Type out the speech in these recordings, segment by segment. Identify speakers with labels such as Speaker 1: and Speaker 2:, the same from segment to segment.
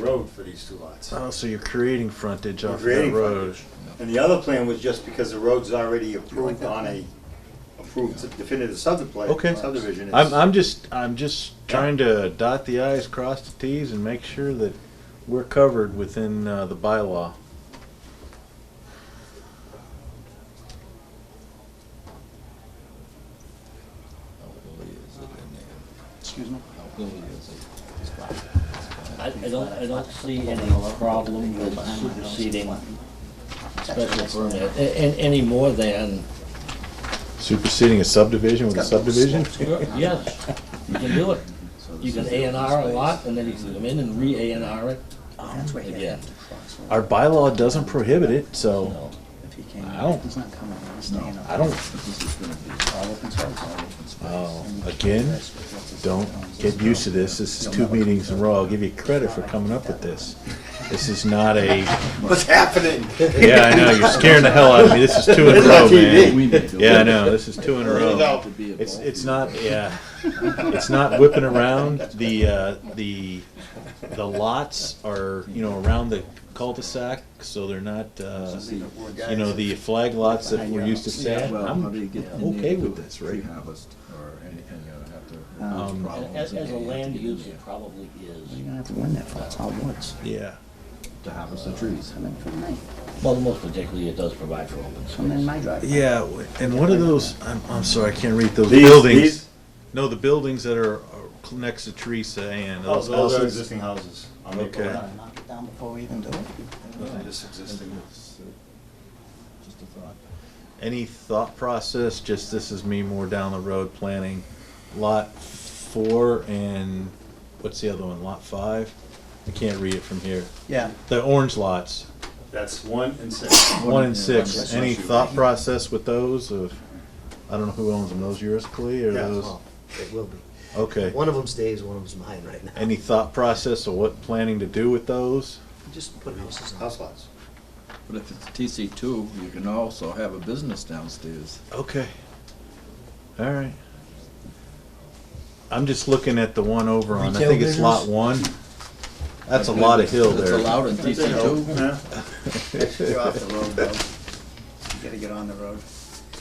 Speaker 1: road for these two lots.
Speaker 2: Oh, so you're creating frontage
Speaker 1: You're
Speaker 2: off that
Speaker 1: creating
Speaker 2: road.
Speaker 1: And the other plan was just because the road's already approved on a approved definitive subdivision.
Speaker 2: Okay.
Speaker 1: Subdivision.
Speaker 2: I'm,
Speaker 1: it's-
Speaker 2: I'm just, I'm just trying to dot the i's, cross the t's, and make sure that we're covered within uh, the bylaw.
Speaker 3: How early is it in there?
Speaker 4: Excuse me?
Speaker 3: How early is it?
Speaker 5: I, I don't, I don't see any problem with superseding special permit, a- a- any more than,
Speaker 2: Superseding a subdivision with a subdivision?
Speaker 5: yes, you can do it. You can A and R a lot, and then you can come in and re-A and R it.
Speaker 4: That's where he'd
Speaker 5: Again.
Speaker 4: have to cross over.
Speaker 2: Our bylaw doesn't prohibit it, so
Speaker 5: No.
Speaker 4: If he came,
Speaker 2: I don't-
Speaker 4: he's not coming, he's staying
Speaker 2: I
Speaker 4: up.
Speaker 2: don't,
Speaker 3: This is gonna be,
Speaker 4: All open space, all open space.
Speaker 2: Oh,
Speaker 4: And
Speaker 2: again,
Speaker 4: that's what- that's what-
Speaker 2: don't get used to this. This is two meetings in a row. I'll give you credit for coming up with this. This is not a,
Speaker 1: What's happening?
Speaker 2: yeah, I know, you're scaring the hell out of me. This is two in a
Speaker 1: This is on
Speaker 2: row,
Speaker 1: TV.
Speaker 2: man.
Speaker 3: we need to.
Speaker 2: Yeah, I know, this is two in a
Speaker 1: There you
Speaker 2: row.
Speaker 1: go.
Speaker 2: It's, it's not, yeah, it's not whipping around, the, uh, the, the lots are, you know, around the cul-de-sac, so they're not, uh, you know, the flag lots that we're used to seeing.
Speaker 3: Well, how do
Speaker 2: I'm
Speaker 3: you get in there
Speaker 2: okay
Speaker 3: to
Speaker 2: with
Speaker 3: do a
Speaker 2: this,
Speaker 3: tree
Speaker 2: right?
Speaker 3: harvest or anything, you know, have to.
Speaker 4: Um,
Speaker 3: problems
Speaker 5: As,
Speaker 3: and
Speaker 5: as a
Speaker 3: you have to
Speaker 5: land
Speaker 3: get in
Speaker 5: use,
Speaker 3: there
Speaker 5: it probably is,
Speaker 4: You don't have to win that, it's all woods.
Speaker 2: Yeah,
Speaker 3: To harvest the trees.
Speaker 4: Come in from me,
Speaker 5: well, most particularly, it does provide for open
Speaker 4: come in
Speaker 5: space.
Speaker 4: my driveway.
Speaker 2: yeah, and what are those, I'm, I'm sorry, I can't read those
Speaker 1: These-
Speaker 2: buildings.
Speaker 1: these-
Speaker 2: No, the buildings that are are next to Teresa and
Speaker 1: Oh,
Speaker 2: those
Speaker 1: Those are
Speaker 2: houses.
Speaker 1: existing houses. on Maple
Speaker 2: Okay.
Speaker 1: Ave.
Speaker 4: Knock it down before we even do it.
Speaker 1: Those are just existing.
Speaker 3: It's, uh, Just a thought.
Speaker 2: Any thought process, just this is me more down the road planning, lot four and, what's the other one, lot five? I can't read it from here.
Speaker 4: Yeah,
Speaker 2: The orange lots,
Speaker 1: That's one and six.
Speaker 2: one and
Speaker 3: Yeah,
Speaker 2: six,
Speaker 3: that's
Speaker 2: any
Speaker 3: what you-
Speaker 2: thought process with those of, I don't know who owns them, those yours, Clea, or
Speaker 1: Yeah.
Speaker 2: those?
Speaker 6: Well, it will be.
Speaker 2: Okay,
Speaker 6: One of them stays, one of them's mine right now.
Speaker 2: any thought process of what planning to do with those?
Speaker 6: Just put houses on.
Speaker 1: House lots.
Speaker 3: But if it's TC two, you can also have a business downstairs.
Speaker 2: Okay. All right. I'm just looking at the one over on, I
Speaker 6: Retail
Speaker 2: think it's lot
Speaker 6: business?
Speaker 2: one. That's a lot of hill
Speaker 3: It's
Speaker 2: there.
Speaker 3: allowed in TC two.
Speaker 1: Yeah.
Speaker 4: you're off the road, though. You gotta get on the road.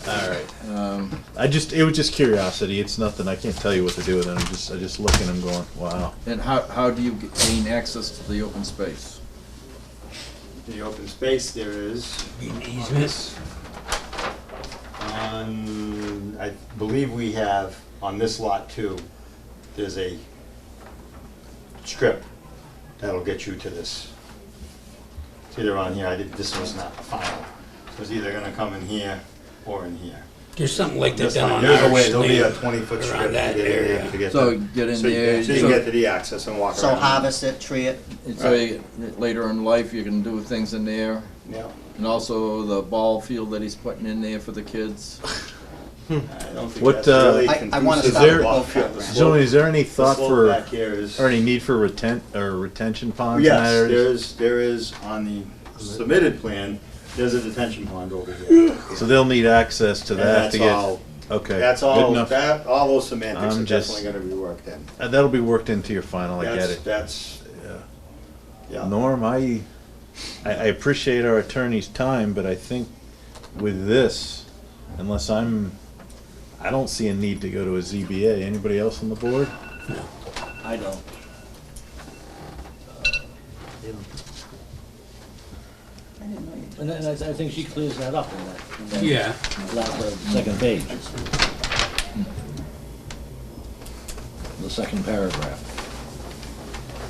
Speaker 2: All right.
Speaker 3: Um,
Speaker 2: I just, it was just curiosity. It's nothing. I can't tell you what to do with it. I'm just, I just looking, I'm going, wow.
Speaker 3: and how, how do you g- gain access to the open space?
Speaker 1: The open space there is. Easements. On, I believe we have, on this lot too, there's a strip that'll get you to this. It's either on here, I did, this was not the final. So it's either gonna come in here or in here.
Speaker 7: There's something like that
Speaker 1: There's
Speaker 7: down on
Speaker 1: a way,
Speaker 7: Irish
Speaker 1: there'll be a
Speaker 7: Lane.
Speaker 1: twenty foot
Speaker 7: around
Speaker 1: strip to
Speaker 7: that
Speaker 1: get in there
Speaker 7: area.
Speaker 1: to get
Speaker 3: So
Speaker 1: to-
Speaker 3: get in
Speaker 1: so you-
Speaker 3: there,
Speaker 1: So you
Speaker 3: so-
Speaker 1: can get to the access and walk around.
Speaker 4: So harvest it, tree it,
Speaker 3: And so you- later in life, you can do things in there.
Speaker 1: Yeah,
Speaker 3: And also the ball field that he's putting in there for the kids.
Speaker 1: I don't think
Speaker 2: What,
Speaker 1: that's
Speaker 2: uh,
Speaker 1: really
Speaker 4: I- I
Speaker 1: conducive
Speaker 4: wanna
Speaker 1: to
Speaker 2: stop at
Speaker 1: the ball
Speaker 4: both
Speaker 1: field.
Speaker 4: backgrounds.
Speaker 1: The slope-
Speaker 2: Gentlemen, is there any
Speaker 1: the
Speaker 2: thought
Speaker 1: slope
Speaker 2: for,
Speaker 1: back here is-
Speaker 2: or any need for retent, or retention ponds in that
Speaker 1: Yes, there
Speaker 2: area?
Speaker 1: is, there is on the submitted plan, there's a detention pond over here.
Speaker 2: So they'll need access to
Speaker 1: And
Speaker 2: that
Speaker 1: that's
Speaker 2: to get,
Speaker 1: all,
Speaker 2: okay.
Speaker 1: that's
Speaker 2: good
Speaker 1: all,
Speaker 2: enough.
Speaker 1: that, all those semantics
Speaker 2: I'm
Speaker 1: are
Speaker 2: just-
Speaker 1: definitely gonna be worked in.
Speaker 2: Uh, That'll be worked into your final, I get
Speaker 1: That's,
Speaker 2: it.
Speaker 1: that's, yeah.
Speaker 2: Norm, I, I I appreciate our attorney's time, but I think with this, unless I'm, I don't see a need to go to a ZBA. Anybody else on the board?
Speaker 5: I don't. And then I, I think she clears that up in that- in that.
Speaker 7: Yeah.
Speaker 5: last, uh, second page. Hmm. The second paragraph.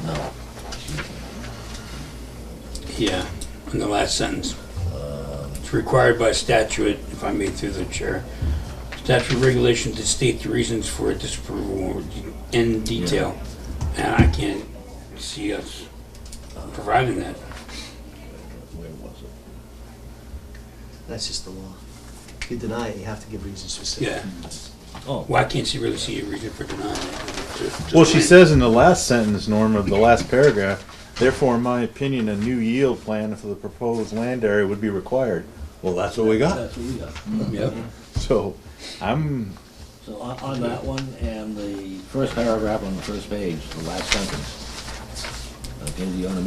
Speaker 5: No,
Speaker 7: Yeah, in the last sentence. It's required by statute, if I may through the chair, statute regulations to state the reasons for disapproval in detail. And I can't see us providing that.
Speaker 5: where was it?
Speaker 6: That's just the law. If you deny it, you have to give reasons for saying.
Speaker 7: Yeah.
Speaker 5: Oh,
Speaker 7: Well, I can't see, really see a reason for denying it.
Speaker 2: Well, she says in the last sentence, Norm, of the last paragraph, therefore, in my opinion, a new yield plan for the proposed land area would be required. Well, that's what we got.
Speaker 5: that's what we got.
Speaker 7: Yep.
Speaker 2: So I'm,
Speaker 5: So on, on that one and the first paragraph on the first page, the last sentence. Uh, Okay, the owner may